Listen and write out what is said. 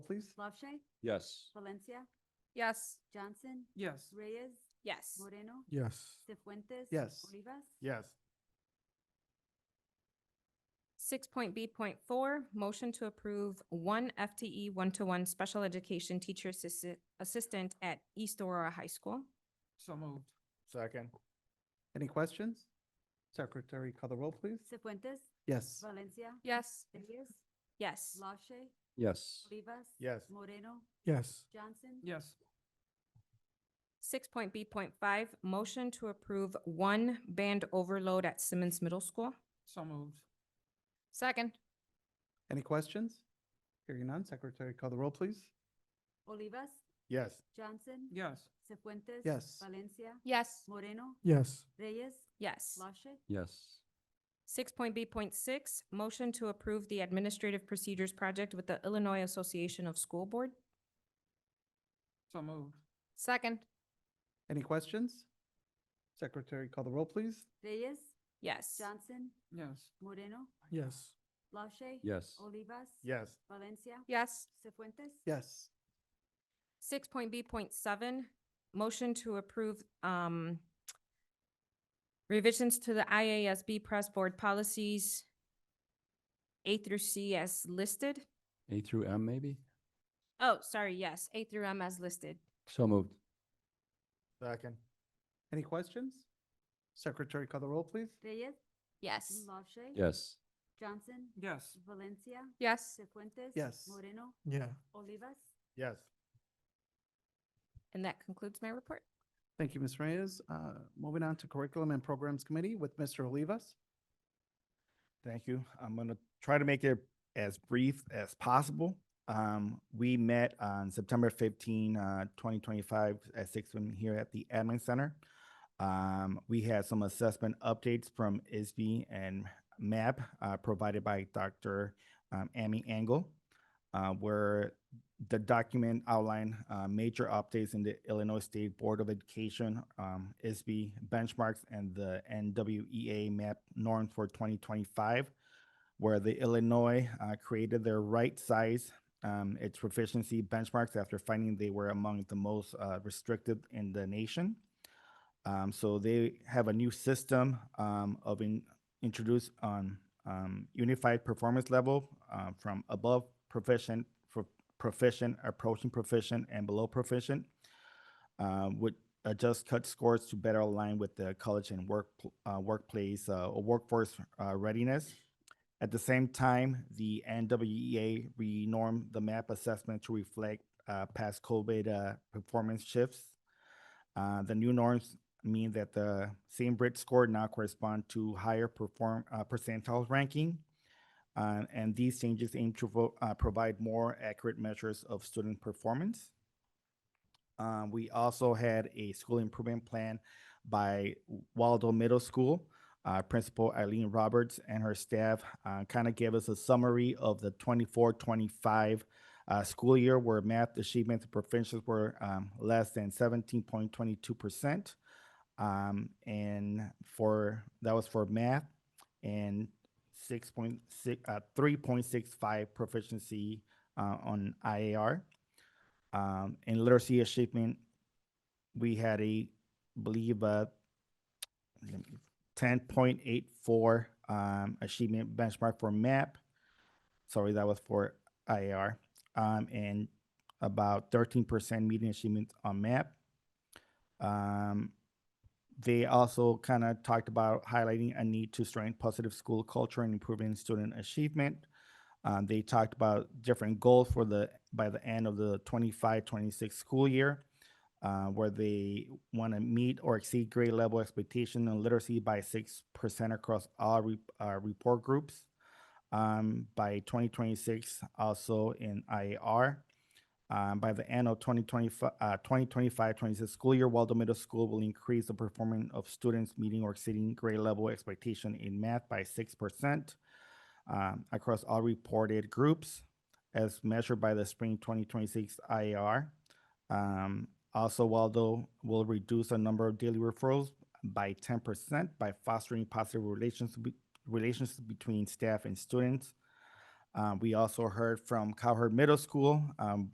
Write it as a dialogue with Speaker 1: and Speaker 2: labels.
Speaker 1: please?
Speaker 2: Lache,
Speaker 3: Yes.
Speaker 2: Valencia,
Speaker 4: Yes.
Speaker 2: Johnson,
Speaker 1: Yes.
Speaker 2: Reyes,
Speaker 4: Yes.
Speaker 2: Moreno,
Speaker 5: Yes.
Speaker 2: Cefuentes.
Speaker 1: Yes.
Speaker 2: Rivas.
Speaker 5: Yes.
Speaker 4: Six point B point four, motion to approve one FTE one-to-one special education teacher assistant, assistant at East Aurora High School.
Speaker 1: So moved.
Speaker 5: Second.
Speaker 1: Any questions? Secretary, call the roll, please.
Speaker 2: Cefuentes,
Speaker 1: Yes.
Speaker 2: Valencia.
Speaker 4: Yes.
Speaker 2: Reyes,
Speaker 4: Yes.
Speaker 2: Lache,
Speaker 3: Yes.
Speaker 2: Rivas.
Speaker 5: Yes.
Speaker 2: Moreno,
Speaker 5: Yes.
Speaker 2: Johnson.
Speaker 1: Yes.
Speaker 4: Six point B point five, motion to approve one band overload at Simmons Middle School.
Speaker 1: So moved.
Speaker 4: Second.
Speaker 1: Any questions? Hearing none, secretary, call the roll, please.
Speaker 2: Olivas,
Speaker 5: Yes.
Speaker 2: Johnson.
Speaker 1: Yes.
Speaker 2: Cefuentes.
Speaker 1: Yes.
Speaker 2: Valencia,
Speaker 4: Yes.
Speaker 2: Moreno,
Speaker 5: Yes.
Speaker 2: Reyes,
Speaker 4: Yes.
Speaker 2: Lache.
Speaker 3: Yes.
Speaker 4: Six point B point six, motion to approve the administrative procedures project with the Illinois Association of School Board.
Speaker 1: So moved.
Speaker 4: Second.
Speaker 1: Any questions? Secretary, call the roll, please.
Speaker 2: Reyes,
Speaker 4: Yes.
Speaker 2: Johnson,
Speaker 1: Yes.
Speaker 2: Moreno,
Speaker 5: Yes.
Speaker 2: Lache.
Speaker 3: Yes.
Speaker 2: Olivas.
Speaker 5: Yes.
Speaker 2: Valencia.
Speaker 4: Yes.
Speaker 2: Cefuentes.
Speaker 1: Yes.
Speaker 4: Six point B point seven, motion to approve, um, revisions to the IASB press board policies A through C as listed.
Speaker 3: A through M, maybe?
Speaker 4: Oh, sorry, yes, A through M as listed.
Speaker 3: So moved.
Speaker 5: Second.
Speaker 1: Any questions? Secretary, call the roll, please.
Speaker 2: Reyes,
Speaker 4: Yes.
Speaker 2: Lache.
Speaker 3: Yes.
Speaker 2: Johnson,
Speaker 1: Yes.
Speaker 2: Valencia.
Speaker 4: Yes.
Speaker 2: Cefuentes.
Speaker 1: Yes.
Speaker 2: Moreno,
Speaker 5: Yeah.
Speaker 2: Olivas.
Speaker 5: Yes.
Speaker 4: And that concludes my report.
Speaker 1: Thank you, Ms. Reyes. Uh, Moving on to Curriculum and Programs Committee with Mr. Olivas.
Speaker 6: Thank you. I'm gonna try to make it as brief as possible. Um, we met on September 15, uh, 2025, at six P M here at the Admin Center. Um, we had some assessment updates from ISB and MAP, uh, provided by Dr. Um, Amy Angle. Uh, where the document outlined, uh, major updates in the Illinois State Board of Education, um, ISB benchmarks and the NWEA map norms for twenty twenty-five, where the Illinois, uh, created their right size, um, its proficiency benchmarks after finding they were among the most, uh, restricted in the nation. Um, so they have a new system, um, of in, introduced on, um, unified performance level, uh, from above proficient, for, proficient, approaching proficient, and below proficient, uh, would adjust cut scores to better align with the college and work uh, workplace uh, or workforce uh, readiness. At the same time, the NWEA renormed the MAP assessment to reflect uh, past COVID uh, performance shifts. Uh, the new norms mean that the same Brit score now correspond to higher perform uh, percentile ranking. Uh, and these changes aim to vo- uh, provide more accurate measures of student performance. Um, we also had a school improvement plan by Waldo Middle School. Uh, Principal Eileen Roberts and her staff uh, kind of gave us a summary of the 24 25 uh, school year where math achievements and proficiencies were um, less than 17.22%. Um, and for that was for math and six point six, uh, three point six five proficiency uh, on IAR. Um, in literacy achievement, we had a believe uh, ten point eight four um, achievement benchmark for MAP. Sorry, that was for IAR, um, and about thirteen percent median achievement on MAP. Um, they also kind of talked about highlighting a need to strengthen positive school culture and improving student achievement. Um, they talked about different goals for the by the end of the 25 26 school year, uh, where they want to meet or exceed grade level expectation and literacy by 6% across all re- uh, report groups. Um, by 2026, also in IAR. Um, by the end of 2025, uh, 2025, 26 school year, Waldo Middle School will increase the performance of students meeting or exceeding grade level expectation in math by 6% um, across all reported groups as measured by the spring 2026 IAR. Um, also, Waldo will reduce the number of daily referrals by 10% by fostering positive relations, be- relations between staff and students. Um, we also heard from Cowherd Middle School, um,